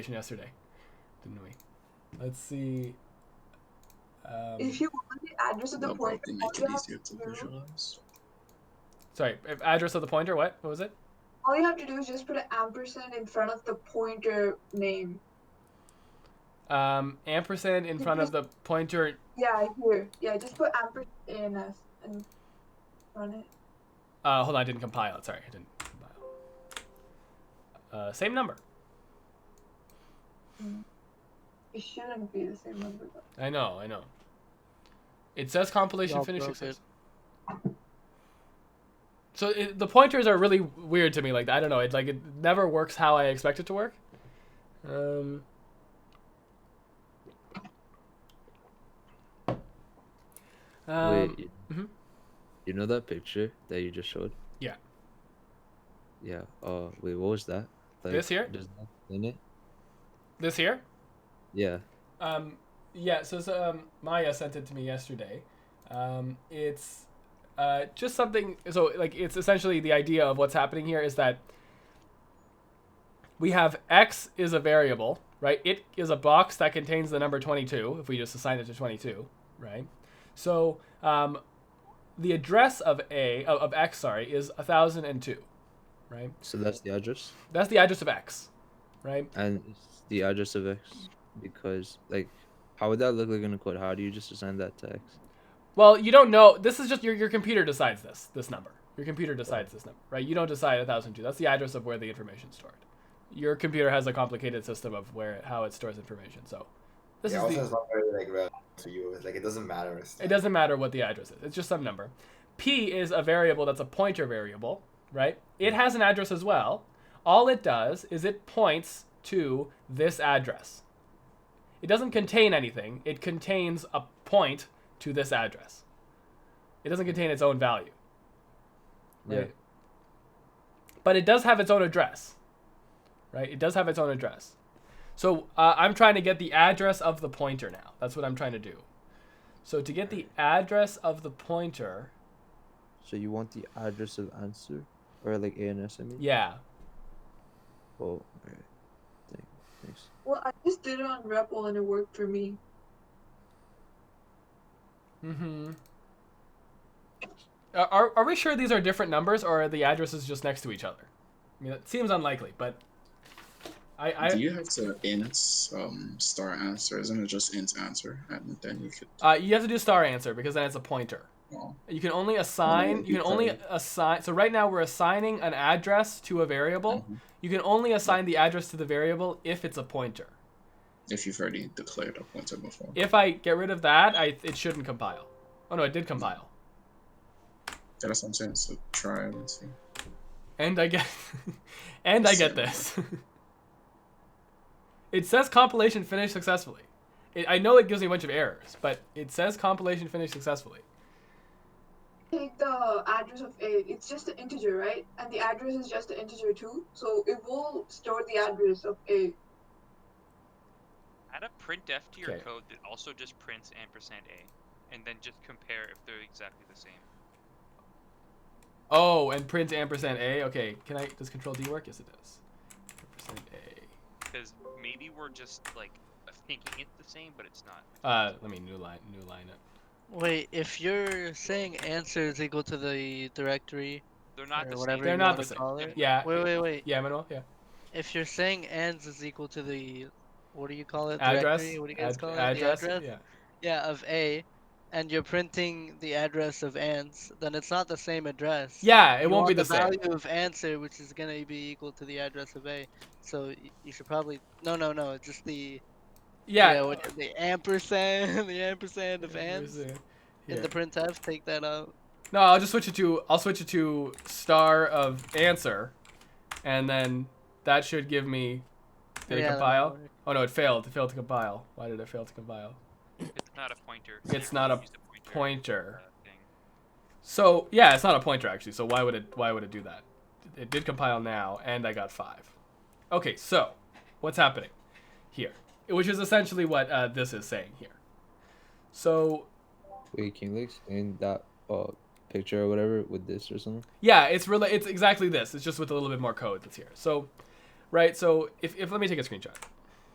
yesterday, didn't we? Let's see. Um, If you want the address of the That'll point, probably all make you it have easier to to do- visualize. sorry, if address of the pointer. What? What was it? all you have to do is just put an ampersand in front of the pointer name. Um, ampersand in front of the pointer. Yeah, here. Yeah, just put ampersand in us and run it. Uh, hold on, I didn't compile it. Sorry, I didn't compile. Uh, same number. It shouldn't be the same number. Though. I know, I know. It says compilation Y'all finished broke it. success. So it, the pointers are really weird to me. Like I don't know, it like it never works how I expect it to work. Um. um, Wait, you, mhm. you know that picture that you just showed? Yeah. Yeah. Uh, wait, what was that? Like, This here? Does that in it? this here. Yeah. Um, yeah, so, so um, Maya sent it to me yesterday. Um, it's uh, just something. So, like, it's essentially the idea of what's happening here is that we have x is a variable, right? It is a box that contains the number 22, if we just assign it to 22, right? So, um, the address of a of, of x, sorry, is 1002, right? So that's the address, That's the address of x, right? and it's the address of X because like, how would that look like in a code? How do you just assign that to X? Well, you don't know. This is just your, your computer decides this this number. Your computer decides this number, right? You don't decide 1002. That's the address of where the information's stored. Your computer has a complicated system of where how it stores information. So, this yeah, is also the, it's not very like relevant to you. It's like it doesn't matter. It's it doesn't matter what the address is. It's just some number. P is a variable that's a pointer variable, right? It has an address as well. All it does is it points to this address. It doesn't contain anything. It contains a point to this address. It doesn't contain its own value. Yeah. Right? But it does have its own address. Right? It does have its own address. So uh, I'm trying to get the address of the pointer now. That's what I'm trying to do. So to get the address of the pointer, So you want the address of answer or like ANS? I mean. yeah. Oh, all right. Thank, thanks. Well, I just did it on REPL and it worked for me. Mm-hmm. Uh, Are, are we sure these are different numbers or are the addresses just next to each other? I mean, that seems unlikely, but I, I Do you have to int um, star answer? Isn't it just int answer? And then you could. uh, you have to do star answer because then it's a pointer. Well, You can only assign. it'd You be can only fine. assign. So right now we're assigning an address to a variable. Mhm. You can only assign the address to the variable if it's a pointer. if you've already declared a pointer before. If I get rid of that, I it shouldn't compile. Oh no, it did compile. That's what I'm saying. So try and see. And I get and I get this. it says compilation finished successfully. It, I know it gives me a bunch of errors, but it says compilation finished successfully. Take the address of A. It's just an integer, right? And the address is just an integer too. So it will store the address of A. Add a printf to your Okay. code that also just prints ampersand a, and then just compare if they're exactly the same. Oh, and print ampersand a. Okay, can I? Does control D work? Yes, it does. Ampersand a. Because maybe we're just like thinking it's the same, but it's not. Uh, let me new line, new line it. Wait, if you're saying answer is equal to the directory They're not or the whatever same. They're you not wanna the same. call it. Yeah, Wait, wait, wait. Uh, yeah, Manuel, yeah. If you're saying ands is equal to the, what do you call it? Address, Directory? What do you guys ad- call it? address, the address? yeah. Yeah, of A, and you're printing the address of ands, then it's not the same address. Yeah, it You won't be want the same. value of answer, which is gonna be equal to the address of A. So y- you should probably no, no, no. It's just the Yeah. what, the ampersand, the ampersand of ands Ampersand. in Yeah. the printf. Take that out. No, I'll just switch it to I'll switch it to star of answer, and then that should give me. Did Yeah, it that might compile? work. Oh no, it failed. It failed to compile. Why did it fail to compile? It's not a pointer. It's You not can't a use the pointer, uh, Pointer. thing. So yeah, it's not a pointer actually. So why would it why would it do that? It did compile now, and I got five. Okay, so what's happening here? Which is essentially what uh, this is saying here. So Wait, can you like explain that uh picture or whatever with this or something? Yeah, it's really it's exactly this. It's just with a little bit more code that's here. So, right. So if, if let me take a screenshot.